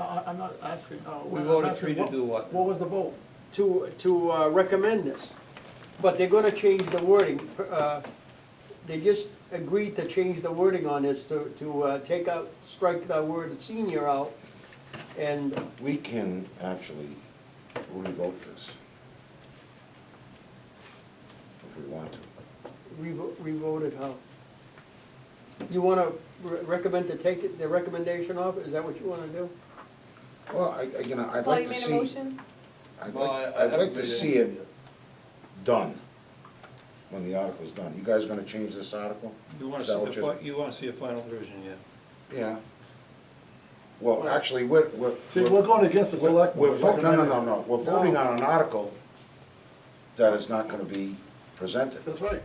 I'm not asking, uh. We I'm voted asking three to do what? What was the vote? to, to uh, recommend this. But they're gonna change the wording. uh, They just agreed to change the wording on this to, to uh, take out, strike the word senior out. And We can actually revoke this. If we want to. revo- revote it how? You wanna re- recommend to take it- the recommendation off? Is that what you wanna do? Well, I, again, I'd Paul, like you to made a see, motion? I'd Well, I- like, I I'd haven't like to made see any it done, when the article's done. You guys gonna change this article? You wanna Is that see what the, you're- fi- you wanna see a final version, yeah. Yeah. Well, actually, we're, we're. See, we're going against the select. We're board. voting, no, no, no, no, we're No. voting on an article that is not gonna be presented. That's right.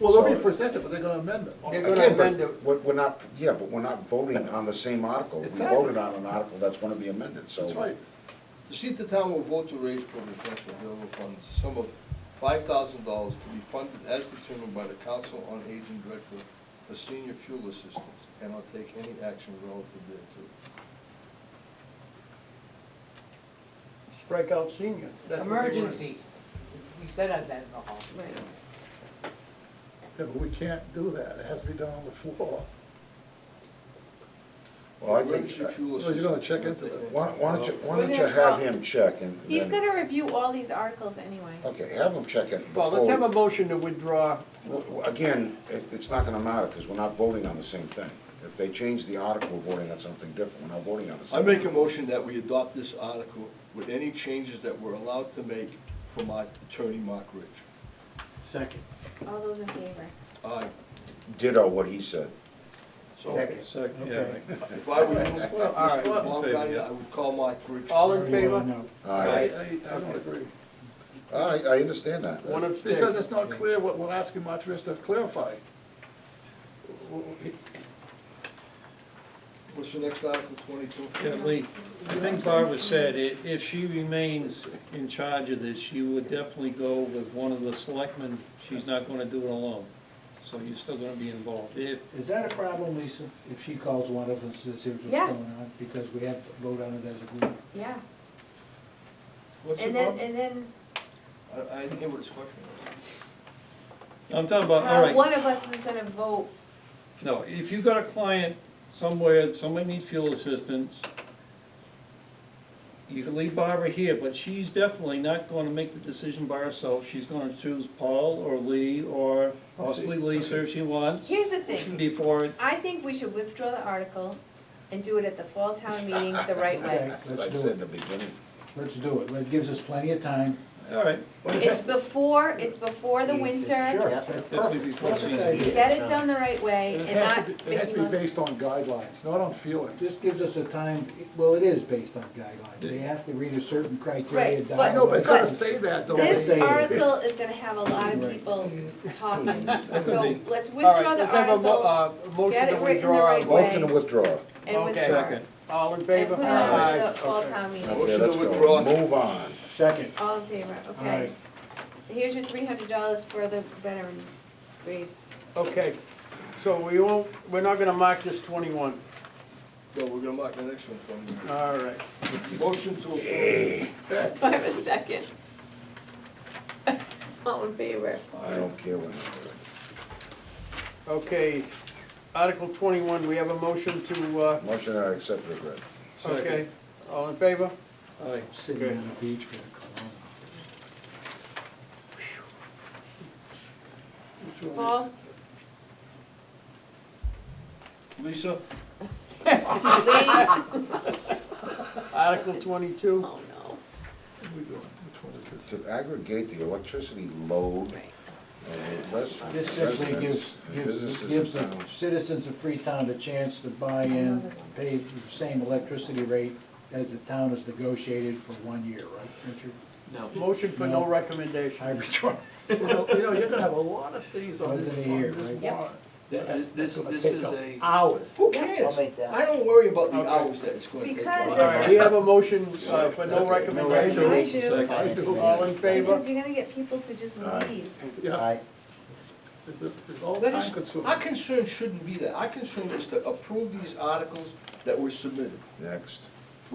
Well, they'll be So- presented, but they're gonna amend it. They're gonna Again, amend but it. we're, we're not, yeah, but we're not voting on the same article. We Exactly. voted on an article that's gonna be amended, so. That's right. To see if the town will vote to raise from the transfer available funds, the sum of five thousand dollars to be funded as determined by the Council on Aging Director for senior fuel assistance, and not take any action relative thereto. Strike out senior. That's what you wanna- Emergency. We said that in the hall. Yeah, but we can't do that. It has to be done on the floor. Well, I think, Emergency fuel Well, you're gonna assistance, check not into take that. any- why, why don't you, why We're don't you gonna have talk. him check and He's then, gonna review all these articles anyway. okay, have him check it. Well, let's before have a we- motion to withdraw. w- w- Again, it, it's not gonna matter, because we're not voting on the same thing. If they change the article, we're voting on something different, we're not voting on the same. I make a motion that we adopt this article with any changes that we're allowed to make from our attorney, Mark Rich. Second. All those in favor? Aye. Ditto what he said. So, Second. Second, yeah. Okay. right. If I were you, Mr. right. Bob Guy, I would call Mark Rich. All in favor? No. I, I, I, I don't agree. I, I understand that. One abstain. Because it's not clear what we're asking Montrez to clarify. What's the next article, twenty-two? Yeah, Lee, I think Barbara said, i- if she remains in charge of this, she would definitely go with one of the selectmen. She's not gonna do it alone, so you're still gonna be involved. If, Is that a problem, Lisa, if she calls one of us to see what's going Yeah. on? Because we have to vote on it as a group. Yeah. What's it And then, about? and then, I, I didn't hear what his question was. I'm talking about, all uh, right, one of us is gonna vote, no, if you've got a client somewhere, somebody needs fuel assistance, you can leave Barbara here, but she's definitely not gonna make the decision by herself. She's gonna choose Paul or Lee or possibly Lisa if she wants, here's the thing, before it I think we should withdraw the article and do it at the fall town meeting the right way. As I Let's do said in it, the beginning. let's do it, it gives us plenty of time. All right, It's before, it's before the winter, definitely before Perfect season. idea. get it done the right way And it and has to not be, it has Mickey to be Mouse. based on guidelines, not on feeling. This gives us a time, well, it is based on guidelines, they have to read a certain criteria Right, down. but- I know, but it's gotta But- say that though. This say it. article is gonna have a lot of people talking, so let's All right, withdraw the let's have a mo- article uh, Motion Get it to written the withdraw. right way. Motion to withdraw. and okay. withdraw. Second. All in And favor? put it on Aye. the fall Okay. town meeting. Okay, Motion to let's go. withdraw. Move on. Second, All in favor, okay. Here's your three hundred dollars for the veterans graves. Okay, so we won't, we're not gonna mark this twenty-one, No, we're gonna mark the next one for all right. you. Motion to approve. Do I have a second? All in favor? I don't care what. it is. Okay, Article twenty-one, we have a motion to, uh, Motion I accept is read. Second. okay, all in favor? All right. sitting on the beach with a cologne. Paul, Lisa? Lee? Article twenty-two, Oh, no. To aggregate the electricity load Right. of res- This simply residents gives, and gives, businesses gives in the town. citizens of Freetown a chance to buy in, pay the same electricity rate as the town has negotiated for one year, right, Richard? motion for no No. recommendation. Arbitron. You know, you know, you're gonna have a lot of things on Once this, in a year, on this right? Yep. warrant. This, this this is a. Hours. Who I'll cares? make that. I don't worry about the Okay. hours that it's gonna take. Because All All right, we have a motion, uh, for no Okay, no recommendation, I do, Second. all in favor? because you're gonna get people to just Aye. leave. Yeah, Aye. it's, just- it's all That is- time consuming. Our concern shouldn't be that. Our concern is to approve these articles that were submitted. Next.